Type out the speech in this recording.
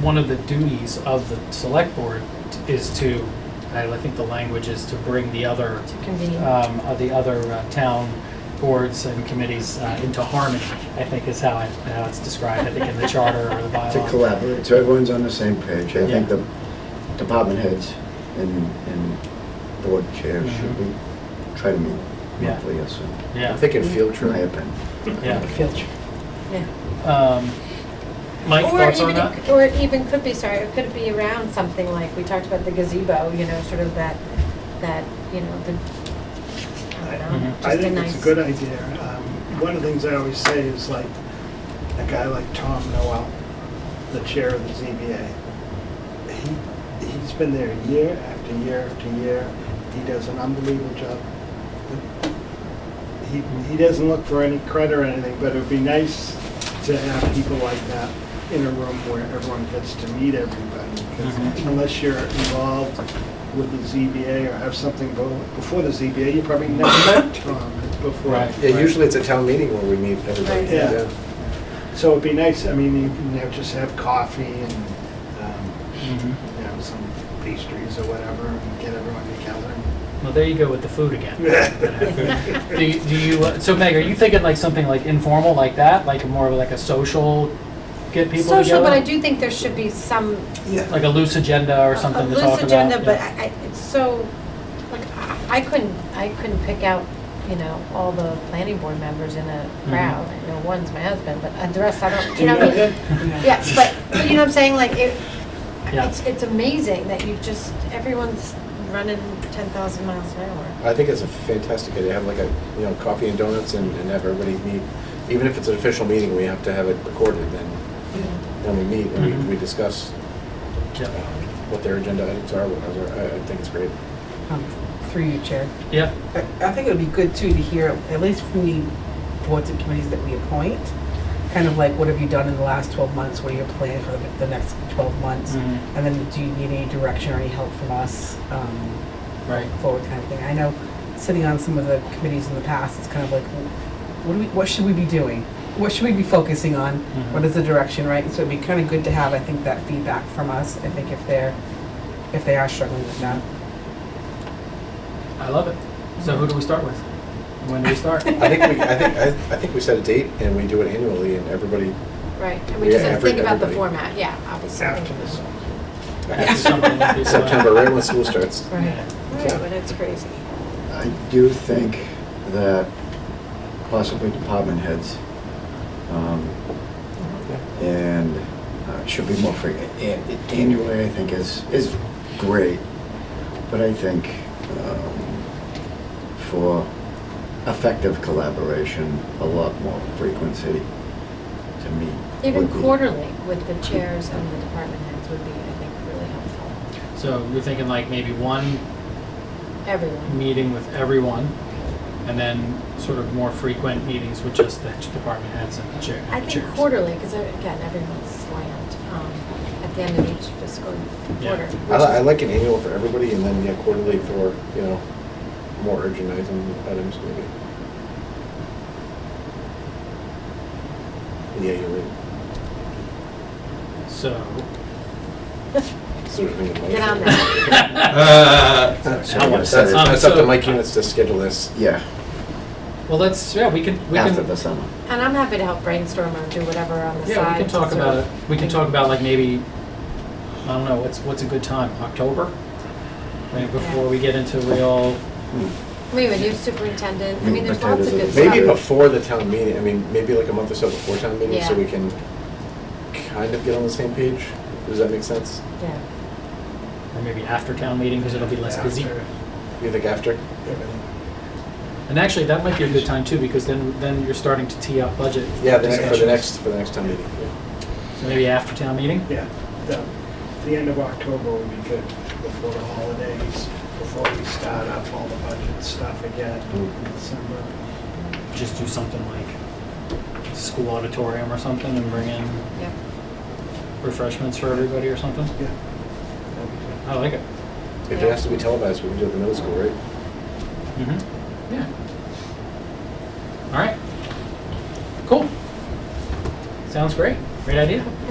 one of the duties of the select board is to, I think the language is to bring the other to convene. um, of the other uh, town boards and committees uh, into harmony, I think is how I- how it's described, I think in the charter or the To bylaw. collaborate, so everyone's on the same page. I think Yeah. the department heads and, and board chairs should be, try to meet Mm-hmm. Yeah. monthly or so, Yeah. I'm thinking field in my trip. opinion. Yeah. Yeah. Um, Mike, Or thoughts on even it that? c- Or it even could be, sorry, it could be around something like, we talked about the gazebo, you know, sort of that, that, you know, the, I don't know, Mhm. just I a think nice. it's a good idea. Um, One of the things I always say is like, a guy like Tom Noel, the chair of the ZBA, he, he's been there year after year after year. He does an unbelievable job. He, he doesn't look for any credit or anything, but it'd be nice to have people like that in a room where everyone gets to meet everybody. 'Cause Mhm. Unless you're involved with the ZBA or have something go- before the ZBA, you probably never met Tom before. Right. Yeah, usually it's a town meeting where we meet everybody. Right. Yeah. So it'd be nice, I mean, you can have, just have coffee and, um, Mhm. you know, some pastries or whatever, and get everyone together. Well, there you go with the food again. Do you- do you, uh, so Meg, are you thinking like something like informal like that, like more of like a social, get people together? Social, but I do think there should be some. Like a loose agenda or something to talk about? A loose agenda, but yeah. I, I- it's so, like, I- I couldn't, I couldn't pick out, you know, all the planning board members in a Mm-hmm. crowd. I know one's my husband, but uh, the rest, I don't, you know what I mean? Yeah, but, but you know what I'm saying, like, it, Yeah. it's, it's amazing that you just, everyone's running ten thousand miles an hour. I think it's a fantastic idea, have like a, you know, coffee and donuts and and have everybody meet. Even if it's an official meeting, we have to have it recorded, then, then we meet and Mhm. we- we discuss um, Yeah. what their agenda items are, what others are. I I think it's great. Um, Through you, Chair. Yeah, I I think it would be good too to hear, at least from the boards and committees that we appoint, kind of like, what have you done in the last 12 months? What are your plans for the- the next 12 months? Mhm. And then do you need any direction or any help from us um, right. forward kind of thing? I know, sitting on some of the committees in the past, it's kind of like, what do we, what should we be doing? What should we be focusing on? Mhm. What is the direction, right? So it'd be kind of good to have, I think, that feedback from us, I think if they're, if they are struggling with that. I love it. So who do we start with? When do we start? I think we, I think, I I think we set a date and we do it annually and everybody, Right, and we just Yeah, have to think every- about the everybody. format, yeah, obviously. After the summer. After something like this, uh, September, right when school starts. Right, right, Yeah. but it's crazy. I do think that possibly department heads um, and uh, should be more frequent. And annually, I think is, is great, but I think um, for effective collaboration, a lot more frequency to meet. Even would be- quarterly with the chairs and the department heads would be, I think, really helpful. So you're thinking like maybe one Everyone, meeting with everyone, and then sort of more frequent meetings with just the department heads and the chair. I think chairs. quarterly, because again, everyone's slammed, um, at the end of each fiscal Yeah. quarter. I which li- I is- like an annual for everybody and then, yeah, quarterly for, you know, more urgent item- items maybe. Yeah, you're right. So Sort of in the motion. Get on that. How much? Uh, That's that's up Um, so- to Mike Units to schedule this. Yeah, well, let's yeah we can we after can the summer. And I'm happy to help brainstorm or do whatever on the side. yeah we can to talk sort about of it. We can think- talk about like maybe I don't know what's what's a good time October, maybe before we get into real. We have a new superintendent, I Mm, mean, there's potatoes lots of are good the- stuff. Maybe before the town meeting, I mean, maybe like a month or so before town meeting, so Yeah. we can kind of get on the same page. Does that make sense? Yeah. Or maybe after town meeting because it'll be less busy. After You think after? everything. And actually, that might be a good time too because then then you're starting to tee up budget. Yeah, the ne- for the discussions. next, for the next town meeting. yeah. So maybe after town meeting. Yeah, the, the end of October would be good, before the holidays, before we start up all the budget stuff again Mm-hmm. in December. just do something like school auditorium or something and bring in Yep. refreshments for everybody or something. Yeah. that'd be good. I like it. If Yeah. it has to be televised, we can do it in the middle school, right? Mm-hmm. Yeah. All right. Cool. Sounds great. Great idea.